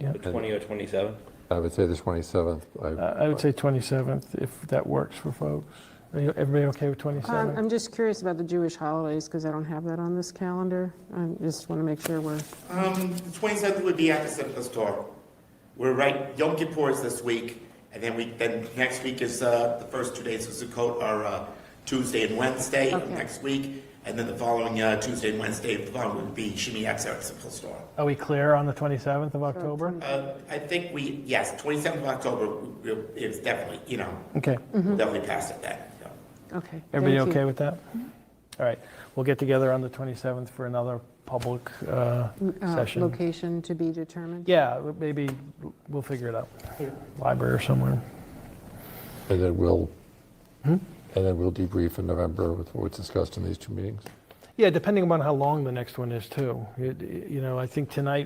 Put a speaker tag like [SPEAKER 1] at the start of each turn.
[SPEAKER 1] Yeah.
[SPEAKER 2] The 20 or 27?
[SPEAKER 3] I would say the 27th. I-
[SPEAKER 1] Uh, I I would say 27th, if that works for folks. Are you- Everybody okay with
[SPEAKER 4] Um,
[SPEAKER 1] 27th?
[SPEAKER 4] I'm just curious about the Jewish holidays, because I don't have that on this calendar. I just want to make sure we're,
[SPEAKER 5] Um, the 27th would be at the Simcha store. We're right, Yom Kippur is this week, and then we, then next week is, uh, the first two days of Sukkot are, uh, Tuesday and Wednesday of
[SPEAKER 4] Okay.
[SPEAKER 5] next week, and then the following, uh, Tuesday and Wednesday of the following would be Shimi Yatzer at Simcha store.
[SPEAKER 1] Are we clear on the 27th of October?
[SPEAKER 5] Uh, I think we, yes, 27th of October, we- we'll- it's definitely, you know,
[SPEAKER 1] Okay.
[SPEAKER 5] definitely past it then, you know.
[SPEAKER 4] okay.
[SPEAKER 1] Everybody
[SPEAKER 4] thank you.
[SPEAKER 1] okay with that? All right, we'll get together on the 27th for another public uh,
[SPEAKER 4] Uh,
[SPEAKER 1] session.
[SPEAKER 4] Location to be determined?
[SPEAKER 1] Yeah, maybe we'll figure it out. Library or somewhere.
[SPEAKER 3] And then we'll, and then we'll debrief in November with what was discussed in these two meetings.
[SPEAKER 1] Yeah, depending upon how long the next one is, too. It- You know, I think tonight